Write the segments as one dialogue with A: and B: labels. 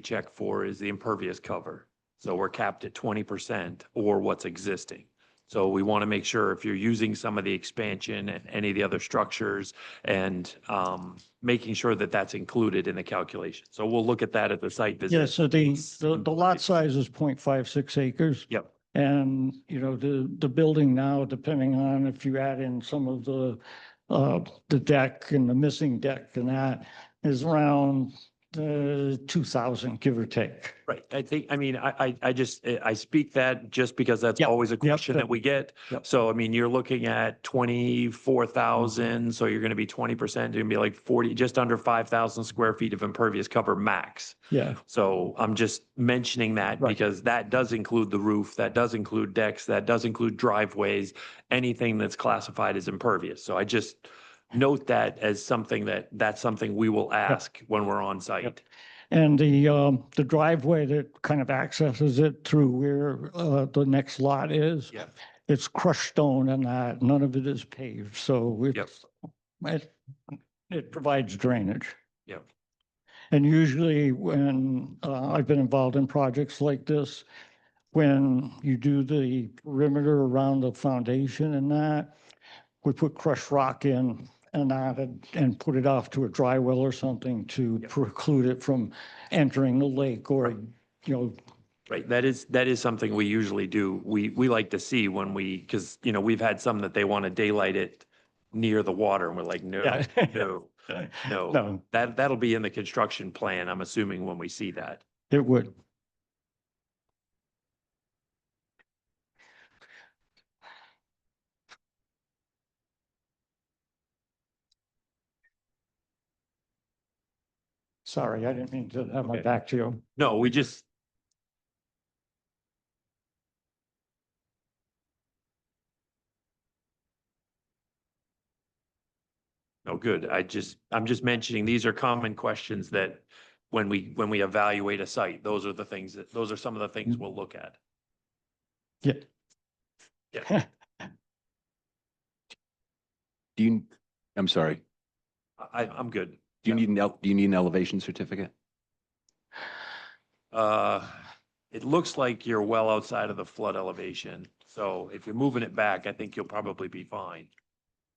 A: check for is the impervious cover. So we're capped at twenty percent or what's existing. So we want to make sure if you're using some of the expansion and any of the other structures and um, making sure that that's included in the calculation. So we'll look at that at the site visit.
B: Yeah, so the, the the lot size is 0.56 acres.
A: Yep.
B: And, you know, the, the building now, depending on if you add in some of the, uh, the deck and the missing deck and that is around, uh, two thousand, give or take.
A: Right. I think, I mean, I, I, I just, I I speak that just because that's
B: Yep.
A: always a question
B: Yep.
A: that we get.
B: Yep.
A: So, I mean, you're looking at twenty-four thousand, so you're going to be twenty percent, you're going to be like forty, just under five thousand square feet of impervious cover max.
B: Yeah,
A: So I'm just mentioning that
B: Mm-hmm. Right.
A: because that does include the roof, that does include decks, that does include driveways, anything that's classified as impervious. So I just note that as something that, that's something we will ask when we're on site.
B: and the, um, the driveway that kind of accesses it through where, uh, the next lot is.
A: Yep.
B: It's crushed stone and that, none of it is paved, so it's, it, it provides drainage.
A: Yep.
B: And usually when, uh, I've been involved in projects like this, when you do the perimeter around the foundation and that, we put crushed rock in and that, and- and put it off to a dry well or something to
A: Yep.
B: preclude it from entering the lake or, you know,
A: Right, that is, that is something we usually do. We, we like to see when we, because, you know, we've had some that they want to daylight it near the water and we're like, no,
B: Yeah.
A: no, no.
B: no,
A: That, that'll be in the construction plan, I'm assuming, when we see that.
B: it would. Sorry, I didn't mean to have my
A: Okay.
B: back to you.
A: No, we just, No, good. I just, I'm just mentioning, these are common questions that when we, when we evaluate a site, those are the things that, those are some of the things
B: Mm-hmm.
A: we'll look at.
B: Yeah.
A: Yeah.
C: Do you, I'm sorry,
A: I, I'm good.
C: do you
A: Yeah.
C: need an, el- do you need an elevation certificate?
A: Uh, it looks like you're well outside of the flood elevation. So if you're moving it back, I think you'll probably be fine.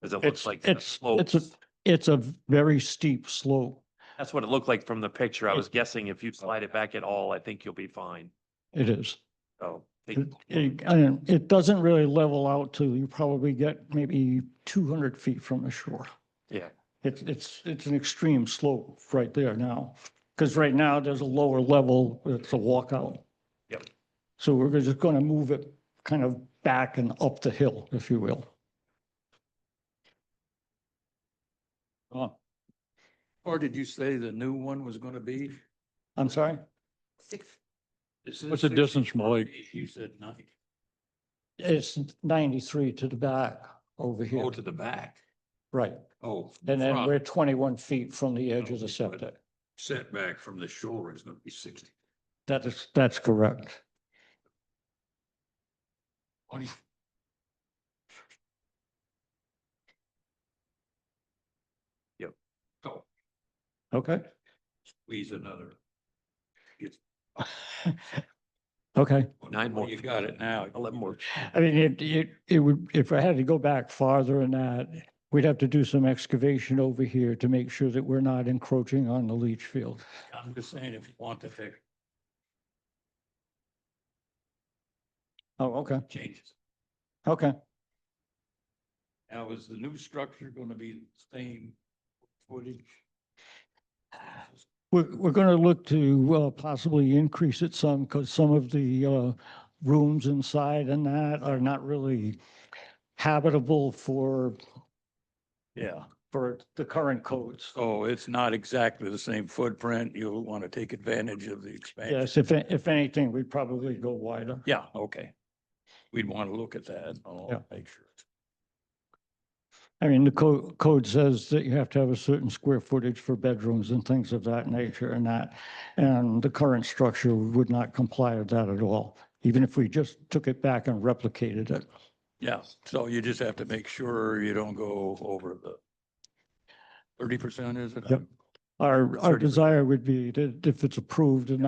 A: Cause it
B: It's-
A: looks like the
B: it's- it's a-
A: slopes.
B: It's a very steep slope.
A: That's what it looked like from the picture. I
B: It-
A: was guessing if you slide it back at all, I think you'll be fine.
B: It is.
A: So. I
B: It,
A: think-
B: it- I don't- it doesn't really level out to, you probably get maybe two hundred feet from the shore.
A: Yeah.
B: It's, it's, it's an extreme slope right there now, because right now there's a lower level, it's a walkout.
A: Yep.
B: So we're just going to move it kind of back and up the hill, if you will. Uh,
D: Or did you say the new one was gonna be?
B: I'm sorry?
D: What's the distance from the lake? You said ninety.
B: It's ninety-three to the back over here,
D: Oh, to the back.
B: right?
D: Oh.
B: And then
D: front Oh,
B: we're twenty-one feet from the edge of the
D: Okay, good.
B: septic.
D: Setback from the shore is gonna be sixty.
B: That is, that's correct.
A: Yep.
D: So
B: Okay,
D: squeeze another.
B: okay.
A: Nine more.
D: You got it now.
A: Eleven more.
B: I mean, it, it, it would, if I had to go back farther than that, we'd have to do some excavation over here to make sure that we're not encroaching on the leach field.
D: I'm just saying if you want to take
B: Oh, okay,
D: changes.
B: okay.
D: Now, is the new structure gonna be the same footage?
B: We're, we're going to look to uh, possibly increase it some because some of the uh, rooms inside and that are not really habitable for, yeah, for the current codes.
D: So it's not exactly the same footprint. You'll want to take advantage of the expansion.
B: Yes, if, if anything, we'd probably go wider.
D: Yeah, okay. We'd want to look at that.
B: Yeah.
D: I'll make sure.
B: I mean, the code, code says that you have to have a certain square footage for bedrooms and things of that nature and that. And the current structure would not comply with that at all, even if we just took it back and replicated it.
D: Yeah, so you just have to make sure you don't go over the thirty percent, is it?
B: Yep. Our, our
D: 30%.
B: desire would be that if it's approved and